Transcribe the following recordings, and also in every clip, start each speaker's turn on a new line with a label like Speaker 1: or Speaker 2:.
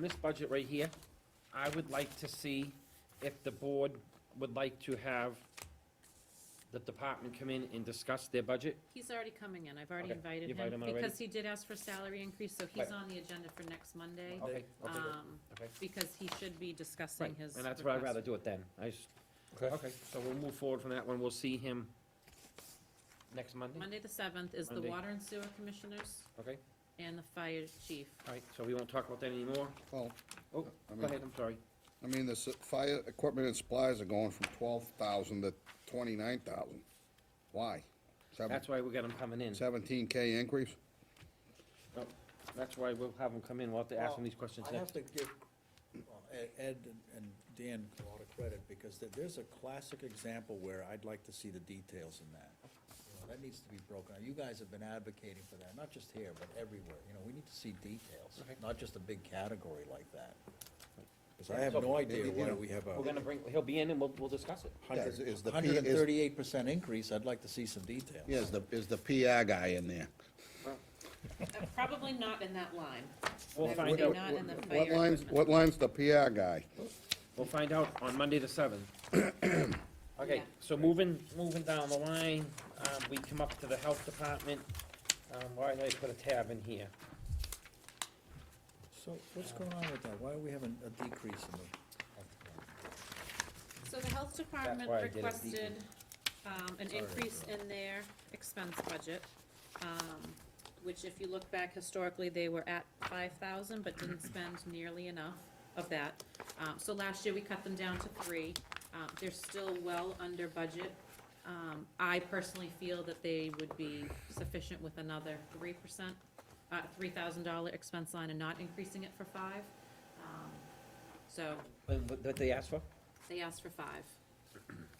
Speaker 1: this budget right here, I would like to see if the board would like to have the department come in and discuss their budget.
Speaker 2: He's already coming in, I've already
Speaker 1: Okay,
Speaker 2: invited
Speaker 1: you invited
Speaker 2: him,
Speaker 1: him already?
Speaker 2: because he did ask for salary increase, so he's
Speaker 1: Right.
Speaker 2: on the agenda for next Monday.
Speaker 1: Okay, okay,
Speaker 2: um,
Speaker 1: okay.
Speaker 2: Because he should be discussing
Speaker 1: Right,
Speaker 2: his.
Speaker 1: And that's what I'd
Speaker 2: request.
Speaker 1: rather do it then. I just,
Speaker 3: Okay.
Speaker 1: okay, so we'll move forward from that one. We'll see him next Monday,
Speaker 2: Monday the seventh is the
Speaker 1: Monday.
Speaker 2: water and sewer commissioners
Speaker 1: okay?
Speaker 2: and the fire chief.
Speaker 1: All right, so we won't talk about that anymore.
Speaker 3: Well,
Speaker 1: Oh,
Speaker 3: I
Speaker 1: go
Speaker 3: mean-
Speaker 1: ahead, I'm sorry.
Speaker 3: I mean, the s- fire equipment and supplies are going from twelve thousand to twenty-nine thousand. Why? Seven-
Speaker 1: That's why we got him coming in.
Speaker 3: Seventeen K increase?
Speaker 1: No, That's why we'll have him come in. We'll have to ask him
Speaker 4: Well,
Speaker 1: these questions
Speaker 4: I have
Speaker 1: next.
Speaker 4: to give well, Ed- Ed and- and Dan a lot of credit, because there- there's a classic example where I'd like to see the details in that. You know, That needs to be broken out. You guys have been advocating for that, not just here, but everywhere. You know, we need to see details,
Speaker 1: Okay.
Speaker 4: not just a big category like that. Because I have no idea why we have
Speaker 1: We're gonna
Speaker 4: a
Speaker 1: bring, he'll be in and we'll, we'll discuss it.
Speaker 3: Is- is the P-
Speaker 4: hundred and
Speaker 3: is-
Speaker 4: thirty-eight percent increase. I'd like to see some details.
Speaker 3: Yeah, is the, is the PR guy in there?
Speaker 2: Uh, Probably not in that line.
Speaker 1: We'll
Speaker 2: That would
Speaker 1: find
Speaker 2: be
Speaker 1: out.
Speaker 2: Not in the fire
Speaker 3: What lines,
Speaker 2: equipment.
Speaker 3: what lines the PR guy?
Speaker 1: We'll find out on Monday the seventh. Okay,
Speaker 2: Yeah.
Speaker 1: so moving, moving down the line, um, we come up to the health department. Um, why did I put a tab in here?
Speaker 4: So what's going on with that? Why are we having a decrease in the?
Speaker 2: So the health department
Speaker 1: why I did it.
Speaker 2: requested, um, an
Speaker 4: Sorry.
Speaker 2: increase in their expense budget, um, which if you look back historically, they were at five thousand, but didn't spend nearly enough of that. Um, so last year, we cut them down to three. Um, they're still well under budget. Um, I personally feel that they would be sufficient with another three percent, uh, three thousand dollar expense line and not increasing it for five. Um, So
Speaker 1: What, what- what they asked for?
Speaker 2: they asked for five.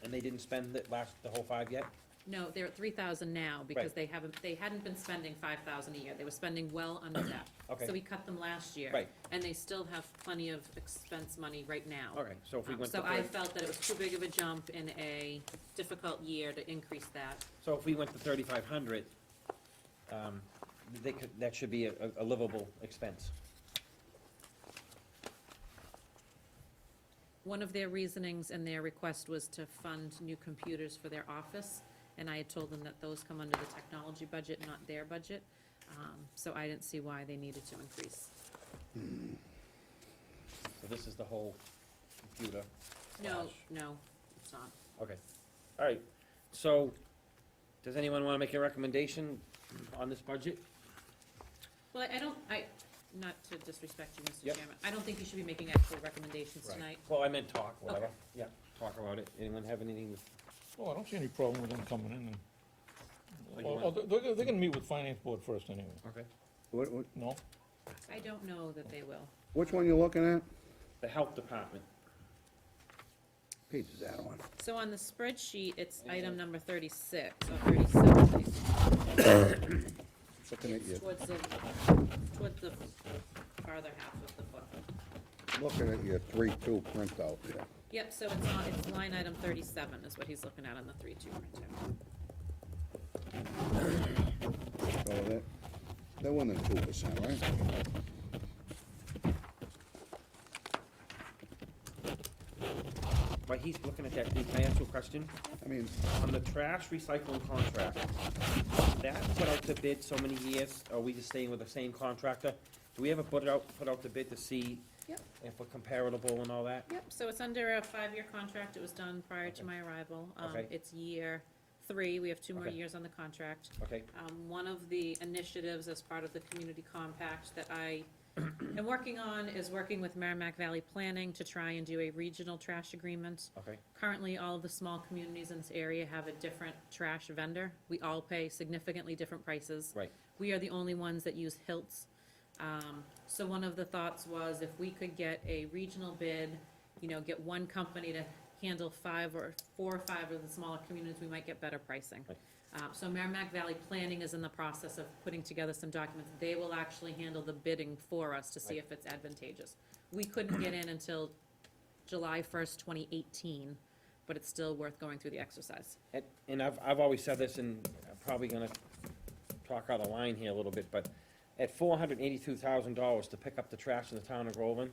Speaker 1: And they didn't spend it last, the whole five yet?
Speaker 2: No, they're at three thousand now, because
Speaker 1: Right.
Speaker 2: they haven't, they hadn't been spending five thousand a year, they were spending well under that.
Speaker 1: Okay.
Speaker 2: So we cut them last year.
Speaker 1: Right.
Speaker 2: And they still have plenty of expense money right now.
Speaker 1: All right, so if we
Speaker 2: Um,
Speaker 1: went to
Speaker 2: So I
Speaker 1: thirty,
Speaker 2: felt that it was too big of a jump in a difficult year to increase that.
Speaker 1: so if we went to thirty-five hundred, um, they could, that should be a, a livable expense.
Speaker 2: One of their reasonings in their request was to fund new computers for their office, and I had told them that those come under the technology budget, not their budget. Um, So I didn't see why they needed to increase.
Speaker 1: So this is the whole computer.
Speaker 2: No,
Speaker 1: Slash.
Speaker 2: no, it's not.
Speaker 1: Okay, all right, so, does anyone wanna make a recommendation on this budget?
Speaker 2: Well, I don't, I, not to disrespect you, Mr.
Speaker 1: Yep.
Speaker 2: Chairman, I don't think you should be making actual recommendations
Speaker 4: Right.
Speaker 2: tonight.
Speaker 1: Well, I meant talk, whatever,
Speaker 2: Okay.
Speaker 1: yeah, talk about it, anyone have anything?
Speaker 5: Well, Oh, I don't see any problem with them coming in and,
Speaker 1: Like you
Speaker 5: well, oh,
Speaker 1: want-
Speaker 5: they're, they're gonna meet with finance board first anyway,
Speaker 1: Okay.
Speaker 3: What, what,
Speaker 5: no?
Speaker 2: I don't know that they will.
Speaker 3: which one you looking at?
Speaker 1: The health department,
Speaker 3: Page is that one?
Speaker 2: So on the spreadsheet, it's
Speaker 1: Yeah.
Speaker 2: item number thirty-six, or thirty-seven,
Speaker 3: Looking at
Speaker 2: it's
Speaker 3: you,
Speaker 2: towards the, towards the farther half of the book.
Speaker 3: looking at your three-two printout there.
Speaker 2: Yep, so it's on, it's line item thirty-seven is what he's looking at on the three-two printout.
Speaker 3: So that, that one is two percent, right?
Speaker 1: but he's looking at that, can I ask you a question?
Speaker 3: I mean,
Speaker 1: On the trash recycling contract, that put out to bid so many years, are we just staying with the same contractor? Do we ever put it out, put out the bid to see
Speaker 2: Yep.
Speaker 1: if we're comparable and all that?
Speaker 2: Yep, so it's under a five-year contract, it was done prior to my arrival. Um,
Speaker 1: Okay.
Speaker 2: It's year three, we have two more
Speaker 1: Okay.
Speaker 2: years on the contract.
Speaker 1: Okay,
Speaker 2: um, one of the initiatives as part of the community compact that I am working on is working with Merrimack Valley Planning to try and do a regional trash agreement.
Speaker 1: okay,
Speaker 2: Currently, all of the small communities in this area have a different trash vendor. We all pay significantly different prices.
Speaker 1: right,
Speaker 2: We are the only ones that use Hiltz. Um, so one of the thoughts was if we could get a regional bid, you know, get one company to handle five or, four or five of the smaller communities, we might get better pricing.
Speaker 1: Right.
Speaker 2: Uh, so Merrimack Valley Planning is in the process of putting together some documents. They will actually handle the bidding for us to see
Speaker 1: Right.
Speaker 2: if it's advantageous. We couldn't get in until July first, twenty eighteen, but it's still worth going through the exercise.
Speaker 1: And, and I've, I've always said this, and I'm probably gonna talk out of line here a little bit, but at four hundred and eighty-two thousand dollars to pick up the trash in the town of Groveland,